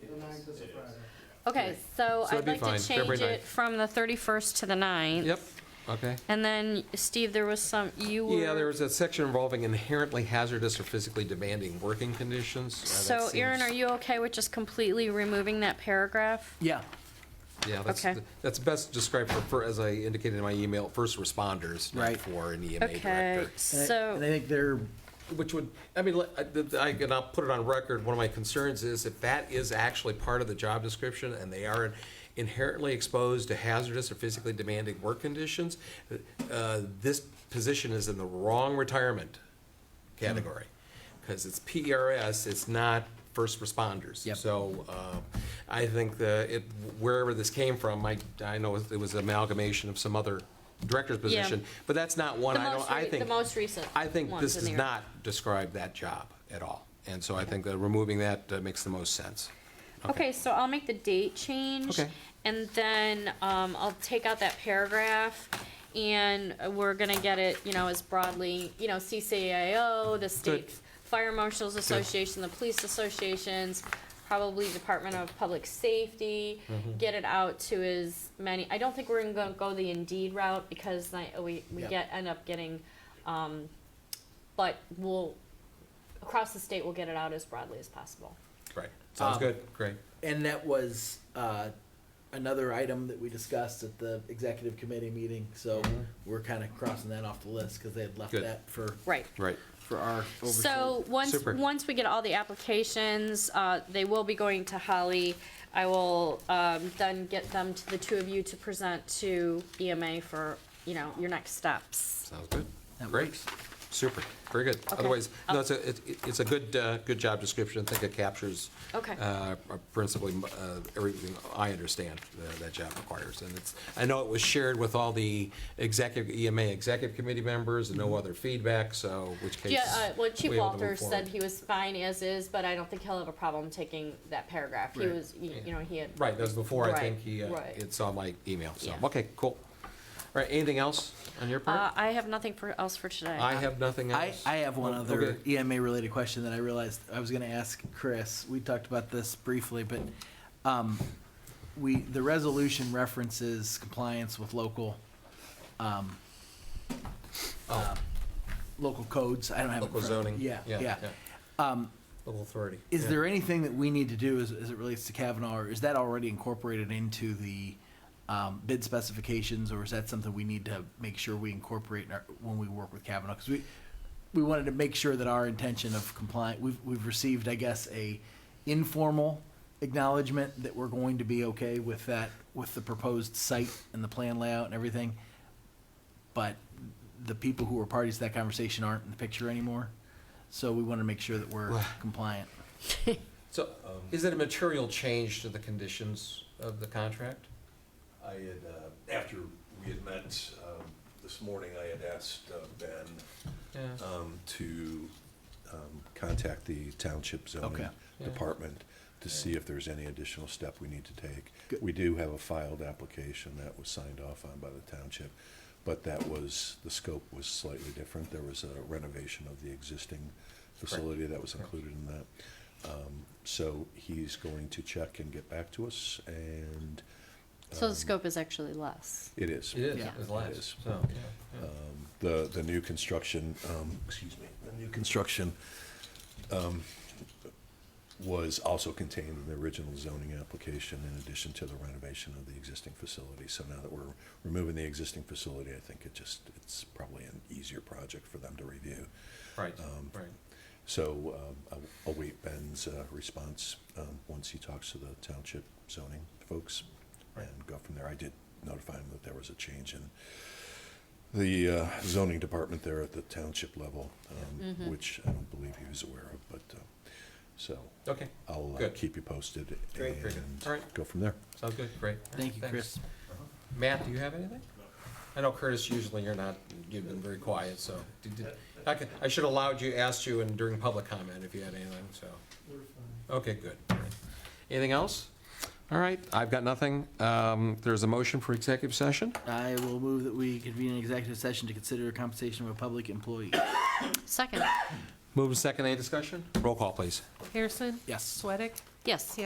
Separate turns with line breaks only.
The ninth is a Friday.
Okay, so
So it'd
I'd
be
like
fine,
to
February
change it
9th.
from the 31st to the 9th.
Yep, okay.
And then, Steve, there was some, you were.
Yeah, there was a section involving inherently hazardous or physically demanding working conditions. Uh, that
So Erin,
seems-
are you okay with just completely removing that paragraph?
Yeah,
Yeah, that's,
okay.
that's best described for- for, as I indicated in my email, first responders, not
Right.
for an EMA
Okay,
director.
and I-
so.
and I think they're,
Which would, I mean, let- I- th- I, and I'll put it on record, one of my concerns is if that is actually part of the job description and they are inherently exposed to hazardous or physically demanding work conditions, uh, this position is in the wrong retirement category. Because it's PRS, it's not first responders.
Yep.
So uh, I think that it, wherever this came from, I, I know it was amalgamation of some other director's
Yeah.
position. But that's not one
the
I
most
don't, I
re-
think.
The most recent.
I think
ones
this
in
does
there.
not describe that job at all. And so I think that removing that uh, makes the most sense.
Okay, so I'll make the date change.
Okay.
And then, um, I'll take out that paragraph and we're gonna get it, you know, as broadly, you know, CCAO, the state fire marshals association, the police associations, probably Department of Public Safety, get it out to as many, I don't think we're gonna go the Indeed route because I, we, we
Yeah.
get, end up getting, um, but we'll, across the state, we'll get it out as broadly as possible.
Right. Sounds
Um,
good. Great.
and that was uh, another item that we discussed at the executive committee meeting, so we're kind of crossing that off the list, because they had left
Good.
that for,
Right.
Right.
for our oversight.
So, once,
Super.
once we get all the applications, uh, they will be going to Holly. I will, um, then get them to the two of you to present to EMA for, you know, your next steps.
Sounds good.
That
Great.
works.
Super. Very good. Otherwise,
Um,
no, it's a, it- it's a good, uh, good job description. I think it captures
Okay.
uh, principally uh, everything I understand that that job requires. And it's, I know it was shared with all the executive, EMA executive committee members and no other feedback, so which case.
Mm-hmm. Yeah, uh, well, Chief
we're able to
Walter
move
said
forward.
he was fine as is, but I don't think he'll have a problem taking that paragraph. He
Right.
was, you you know, he had.
Right, that was before, I
Right,
think he, uh,
right.
it's on my email, so,
Yeah.
okay, cool. All right, anything else on your
Uh,
part?
I have nothing for, else for today.
I have nothing
I,
else.
I have one
Oh,
other
okay.
E EMA-related question that I realized I was gonna ask Chris. We talked about this briefly, but, um, we, the resolution references compliance with local, um, uh, local codes. I don't have. it in
Local
front of me.
zoning.
Yeah, yeah. Um,
Local authority.
is
yeah.
there anything that we need to do as, as it relates to Kavanaugh, or is that already incorporated into the, um, bid specifications, or is that something we need to make sure we incorporate in our, when we work with Kavanaugh? Because we, we wanted to make sure that our intention of compliant, we've, we've received, I guess, a informal acknowledgement that we're going to be okay with that, with the proposed site and the plan layout and everything. But the people who were parties to that conversation aren't in the picture anymore, so we want to make sure that we're
Well-
compliant.
So, is it a material change to the conditions of the contract?
I had, uh, after we had met um, this morning, I had asked uh, Ben
Yeah.
um, to um, contact the township
Okay.
zoning
Yeah.
department to see if there's any additional step we need to take.
Good.
We do have a filed application that was signed off on by the township, but that was, the scope was slightly different. There was a renovation of the existing facility that was included in that. Um, So he's going to check and get back to us, and
So the scope is actually less.
it is.
It is,
Yeah.
it's
It
less,
is.
so, yeah, yeah.
the, the new construction, um, excuse me, the new construction um, was also contained in the original zoning application in addition to the renovation of the existing facility. So now that we're removing the existing facility, I think it just, it's probably an easier project for them to review.
right,
Um,
right.
So um, I'll- I'll await Ben's uh, response um, once he talks to the township zoning folks
Right.
and go from there. I did notify him that there was a change in the uh, zoning department there at the township level, um, which I don't believe he was aware of, but, uh, so
Okay,
I'll uh,
Good.
keep you posted
Great, very good. All
and
right.
go from there.
sounds good, great. All right,
Thank you,
thanks.
Chris.
Matt, do you have anything? I know Curtis, usually you're not, you've been very quiet, so, did- did- I could- I should have allowed you, asked you and during public comment if you had anything, so.
We're fine.
Okay, good. All right. Anything else? All right, I've got nothing. Um, There's a motion for executive session.
I will move that we convene an executive session to consider compensation of a public employee.
Second,
Move to second, any discussion? Roll call, please.
Harrison?
Yes.
Sweattick?
yes.